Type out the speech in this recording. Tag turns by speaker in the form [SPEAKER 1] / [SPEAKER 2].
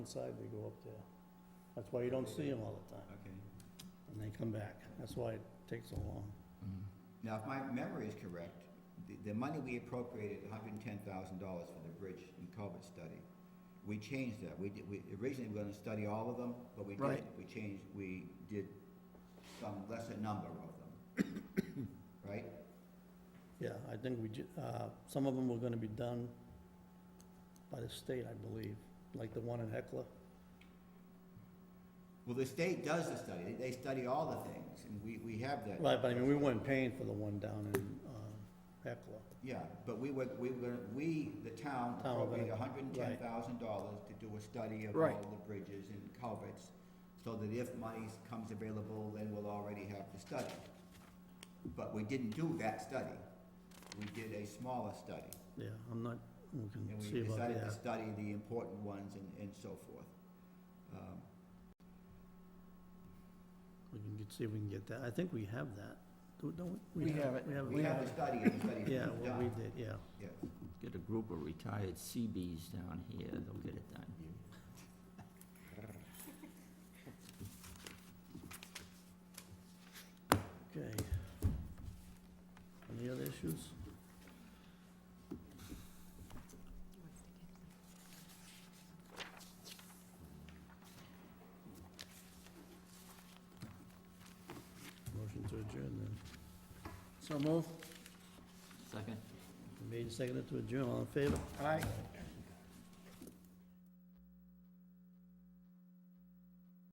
[SPEAKER 1] inside, they go up there. That's why you don't see them all the time,
[SPEAKER 2] Okay.
[SPEAKER 1] and they come back. That's why it takes so long.
[SPEAKER 2] Now, if my memory is correct, the, the money we appropriated, hundred and ten thousand dollars for the bridge and culvert study, we changed that. We did, we originally were gonna study all of them, but we did,
[SPEAKER 1] Right.
[SPEAKER 2] we changed, we did some lesser number of them. Right?
[SPEAKER 1] Yeah, I think we, ju- uh, some of them were gonna be done by the state, I believe, like the one in Heckler.
[SPEAKER 2] Well, the state does the study. They, they study all the things, and we, we have that.
[SPEAKER 1] Right, but I mean, we weren't paying for the one down in, uh, Heckler.
[SPEAKER 2] Yeah, but we were, we were, we, the town
[SPEAKER 1] Town were gonna-
[SPEAKER 2] appropriated hundred and ten thousand dollars to do a study of
[SPEAKER 1] Right.
[SPEAKER 2] all the bridges and culverts, so that if money comes available, then we'll already have the study. But we didn't do that study. We did a smaller study,
[SPEAKER 1] Yeah, I'm not, we
[SPEAKER 2] and
[SPEAKER 1] can
[SPEAKER 2] we
[SPEAKER 1] see about
[SPEAKER 2] decided to
[SPEAKER 1] that.
[SPEAKER 2] study the important ones and, and so forth. Um,
[SPEAKER 1] We can get- see if we can get that. I think we have that. Do- Don't we?
[SPEAKER 3] We have it.
[SPEAKER 1] We have
[SPEAKER 2] We have the
[SPEAKER 1] it.
[SPEAKER 2] study, and the study's
[SPEAKER 1] Yeah,
[SPEAKER 2] been
[SPEAKER 1] what we
[SPEAKER 2] done,
[SPEAKER 1] did, yeah.
[SPEAKER 2] yes.
[SPEAKER 4] Get a group of retired CBs down here, they'll get it done.
[SPEAKER 1] Okay. Any other issues? Motion to adjourn then.
[SPEAKER 3] So move.
[SPEAKER 4] Second?
[SPEAKER 1] Made and seconded to adjourn, all in favor?
[SPEAKER 3] Aye.